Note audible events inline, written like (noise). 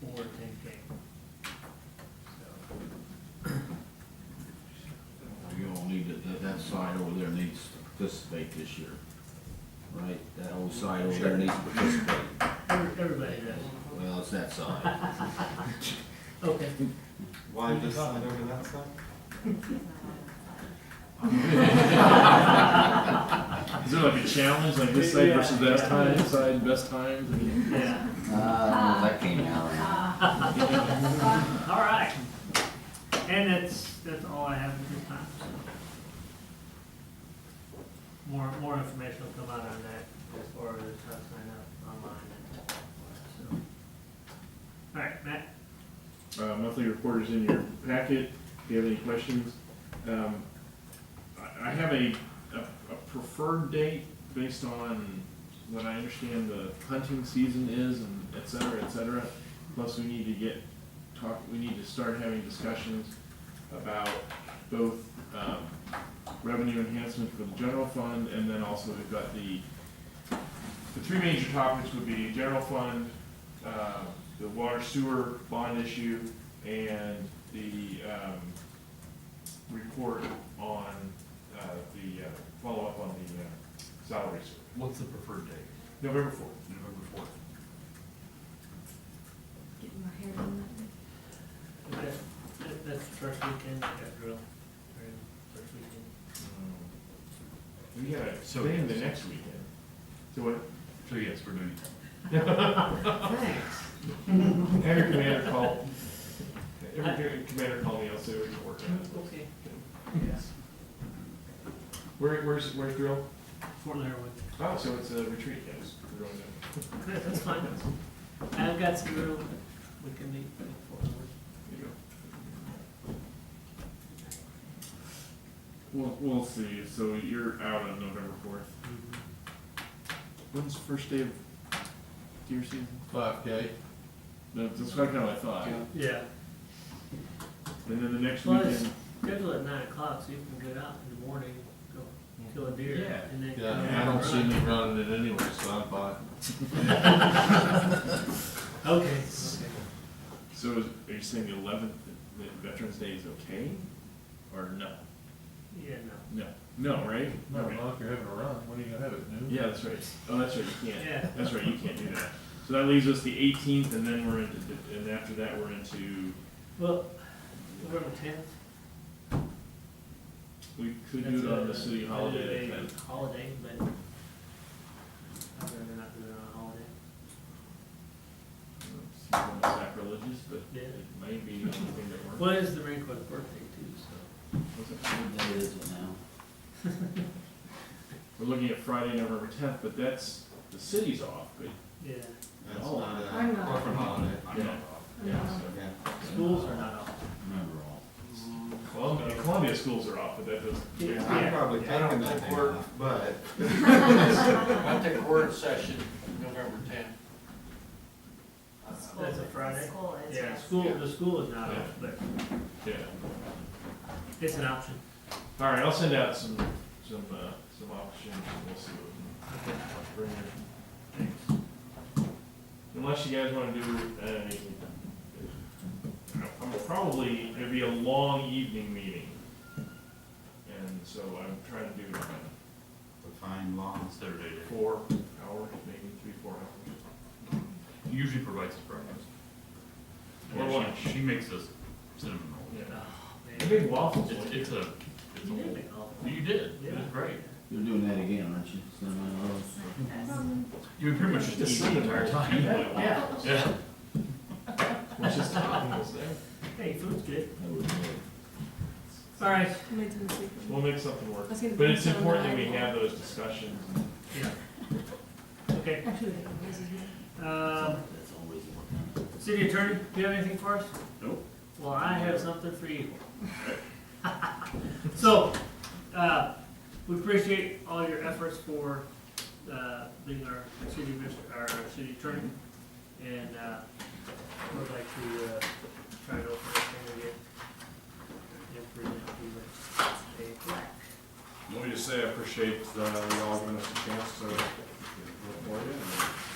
forward thinking. So, We all need to, that, that side over there needs to participate this year, right? That whole side over there needs to participate. every- Everybody does, Well, it's that (laughs) side. okay. Why this side over that side? Is there like a challenge, like this side versus that time, this side best times? I mean, Yeah, Uh, that came out. all right. And that's, that's all I have at this time, so. More, more information will come out on that as far as how to sign up online and so. All right, Matt? Uh, monthly report is in your packet. If you have any questions, um, I, I have a, a, a preferred date based on what I understand the hunting season is and et cetera, et cetera. Plus, we need to get, talk, we need to start having discussions about both, um, revenue enhancement for the general fund and then also we've got the, the three major topics would be general fund, uh, the water sewer bond issue and the um, report on uh, the uh, follow-up on the uh, salary survey, What's the preferred date? November 4th. November fourth. Getting my hair done that day. That- that- That's the first weekend, I got drill, or first weekend. Um, We got a So- thing the next weekend. So what, So yes, we're doing Thanks. every commander called, every commander called me, I'll say we can work on it. Okay. Where, where's, where's drill? Fort Leonard. Oh, so it's a retreat, yes. We're going down. Good, that's fine. I've got some real, we can meet before. There you go. We'll, we'll see, so you're out on November fourth. When's the first day of deer season? Five K. That- That's kind of what I thought. And Yeah, then the next Well, it's- weekend, schedule at nine o'clock, so you can get out in the morning, go kill a deer, Yeah. and then. come Yeah, back I don't and see me run. running it anyway, so I'm fine. Okay. so is- are you saying the eleventh, that Veterans Day is okay? Or no? Yeah, no, No. No, right? No, Okay. if you're having a run, when are you gonna have it, noon? Yeah, that's right. Oh, that's right, you can't. yeah, That's right, you can't do that. So that leaves us the eighteenth, and then we're into, and after that, we're into, well, November tenth. we could do it on the city holiday. that time. Holiday, but I'd rather not do it on a holiday. It's somewhat sacrilegious, but Yeah. it may be the only thing that works. Well, it's the Marine Corps birthday too, so. What's it- We're looking at Friday, November tenth, but that's, the city's off, but Yeah, That's not I'm a not. corporate holiday. I'm not off. Yeah, so, Yeah. schools are not off. Remember all. Columbia, Columbia schools are off, but that doesn't. Yeah. I'm probably I don't taking that day off, but I think we're in session November tenth. That's a Friday? School is, Yeah, yeah. school, Yeah. the school is not Yeah. off, but Yeah. it's an option. All right, I'll send out some, some, uh, some options, and we'll see what we Okay. can bring here. Thanks. Unless you guys wanna do, uh, I'm probably, it'd be a long evening meeting. And so I'm trying to do it on the fine laws. Saturday day. four hours, maybe three, four hours. Usually provides us breakfast. Or Yeah, lunch. she- She makes us cinnamon rolls. Yeah. Oh, I man. made waffles. It's, one year. it's a, it's a You did whole, make all- you did, it Yeah. was great. You're doing that again, aren't you? Cinnamon rolls. You were pretty much just Just eating the entire time. Yeah, Yeah. Which is toppings there. hey, food's good. That would be good. All right, I made some secret- We'll make something work. I was gonna But put it's some uh, on important the that we iPhone. have those discussions. yeah. Okay, Actually, I think this is here. um, That's always working. city attorney, do you have anything for us? Nope. Well, I have something for you. So, uh, we appreciate all your efforts for, uh, being our city, adminis- our city attorney. And, uh, would like to, uh, try to open this thing again. If we're gonna do it. Okay. Let me just say, I appreciate, uh, y'all giving us a chance to report it,